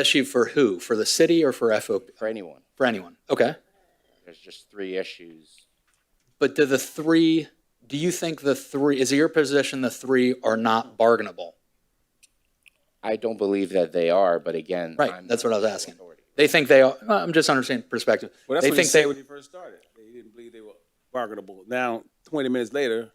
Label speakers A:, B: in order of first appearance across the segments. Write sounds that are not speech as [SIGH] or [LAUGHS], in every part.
A: Issue for who? For the city or for FOP?
B: for anyone.
A: For anyone? Okay.
B: There's just three issues.
A: But do the three, do you think the three, is it your position the three are not bargainable?
B: I don't believe that they are, but again.
A: Right,
B: I'm
A: that's
B: not
A: what I was
B: the
A: asking.
B: authority.
A: They think they are, I'm just understanding perspective.
C: Well, that's
A: They
C: what he
A: think
C: said
A: they,
C: when he first started. He didn't believe they were bargainable. Now, 20 minutes later,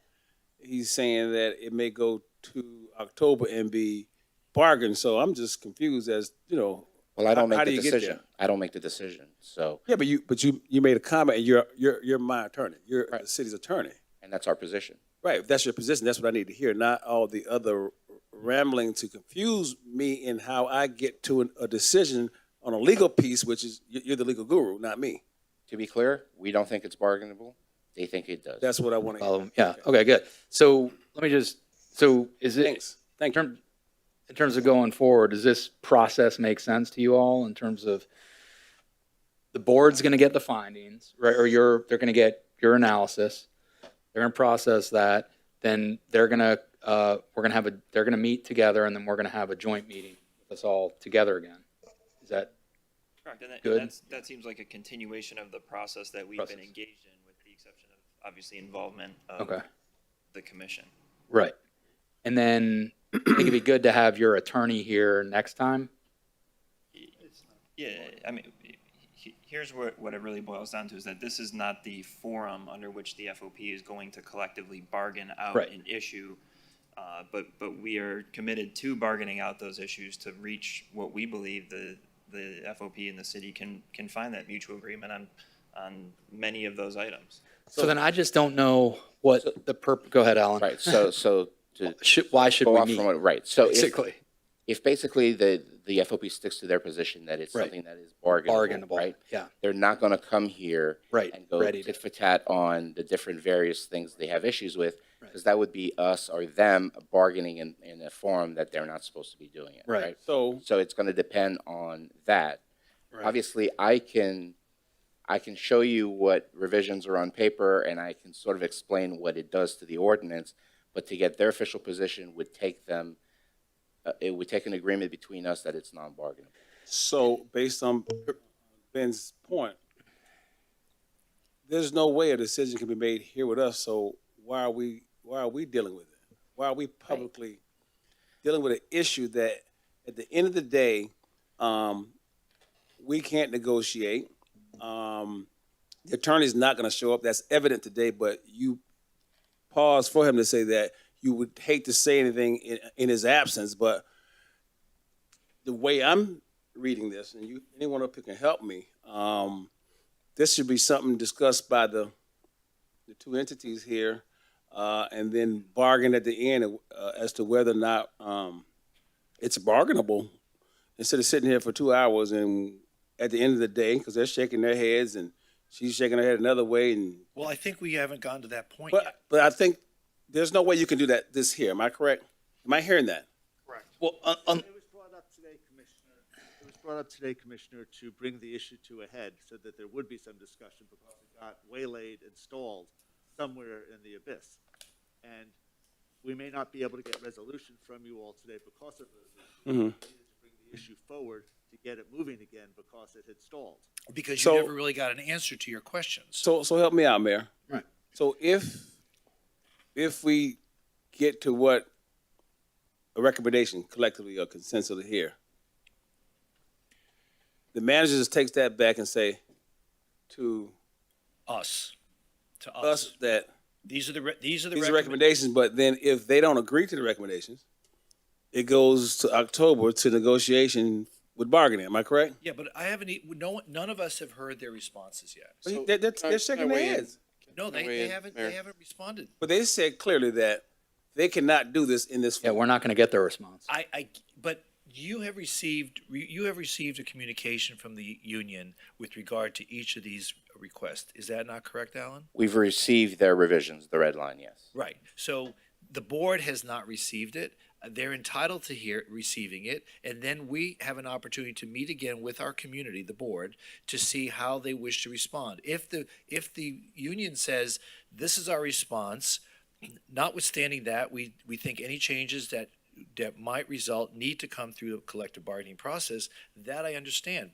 C: he's saying that it may go to October and be bargained. So I'm just confused as you know.
B: Well, I
C: How-
B: don't
C: how
B: make
C: do
B: the
C: you get
B: decision.
C: there?
B: I don't make the decision. So,
C: Yeah, but you but you you made a comment, and you're you're you're my attorney. You're
B: Right.
C: the city's attorney,
B: and that's our position.
C: right? If that's your position, that's what I need to hear, not all the other rambling to confuse me in how I get to an, a decision on a legal piece, which is you- you're the legal guru, not me.
B: To be clear, we don't think it's bargainable. They think it does.
C: That's what I want to hear.
A: follow them. yeah, okay, good. So let me just, so is it?
C: Thanks. Thank
A: in
C: you.
A: term, in terms of going forward, does this process make sense to you all in terms of the board's going to get the findings, right? Or your, they're going to get your analysis. They're going to process that. Then they're going to, uh, we're going to have a, they're going to meet together and then we're going to have a joint meeting with us all together again. Is that,
D: Correct, and that,
A: Good.
D: and that's, that seems like a continuation of the process that we've
A: Process.
D: been engaged in, with the exception of, obviously, involvement of
A: okay,
D: the commission.
A: right. And then [CLEARS THROAT] I think it'd be good to have your attorney here next time.
D: Yeah, I mean, he- here's what, what it really boils down to, is that this is not the forum under which the FOP is going to collectively bargain out
A: Right.
D: an issue. Uh, but, but we are committed to bargaining out those issues to reach what we believe the, the FOP and the city can, can find that mutual agreement on, on many of those items.
A: So then I just don't know what the perp, go ahead, Alan.
B: Right. So, so to
A: [LAUGHS] Should, why should
B: go
A: we
B: off
A: meet?
B: from what, right. So if,
A: Basically.
B: if basically the, the FOP sticks to their position that it's
A: Right.
B: something that is bargainable,
A: bargainable,
B: right?
A: yeah,
B: They're not going to come here
A: Right,
B: and go
A: ready to-
B: tit for tat on the different various things they have issues with, because that would be us or them bargaining in, in a forum that they're not supposed to be doing it,
A: Right.
B: right?
C: So
B: So it's going to depend on that. Obviously, I can, I can show you what revisions are on paper, and I can sort of explain what it does to the ordinance, but to get their official position would take them, uh, it would take an agreement between us that it's non-bargaining.
C: So based on Ben's point, there's no way a decision can be made here with us, so why are we, why are we dealing with it? Why are we publicly dealing with an issue that, at the end of the day, um, we can't negotiate? Um, the attorney's not gonna show up, that's evident today, but you pause for him to say that you would hate to say anything in, in his absence, but the way I'm reading this, and you, anyone up here can help me, um, this should be something discussed by the, the two entities here, uh, and then bargain at the end, uh, as to whether or not, um, it's bargainable. Instead of sitting here for two hours and at the end of the day, because they're shaking their heads and she's shaking her head another way and,
E: Well, I think we haven't gotten to that point yet.
C: but, but I think there's no way you can do that this here, am I correct? Am I hearing that?
A: Well, un- un-
F: It was brought up today, Commissioner, it was brought up today, Commissioner, to bring the issue to a head so that there would be some discussion because it got waylaid and stalled somewhere in the abyss. And we may not be able to get resolution from you all today because of those issues. We needed to bring the Issue forward to get it moving again because it had stalled.
E: Because
C: So-
E: you never really got an answer to your questions.
C: So, so help me out, Mayor.
A: Right.
C: So if, if we get to what, a recommendation collectively or consensus here, the manager just takes that back and say to
E: Us, to us.
C: us that,
E: These are the, re- these are the.
C: these are
E: recommend-
C: recommendations, but then if they don't agree to the recommendations, it goes to October to negotiation with bargaining, am I correct?
E: Yeah, but I haven't, e- no, one- none of us have heard their responses yet.
C: But he- They're, they're- they're shaking their heads.
E: No, they, they haven't, they haven't responded.
C: But they said clearly that they cannot do this in this.
A: yeah, we're not going to get their response.
E: I, I, but you have received, you have received a communication from the union with regard to each of these requests. Is that not correct, Alan?
B: We've received their revisions, the red line, yes.
E: Right. So the board has not received it. Uh, They're entitled to hear, receiving it. And then we have an opportunity to meet again with our community, the board, to see how they wish to respond. If the, if the union says, this is our response, notwithstanding that, we, we think any changes that that might result need to come through the collective bargaining process. That I understand,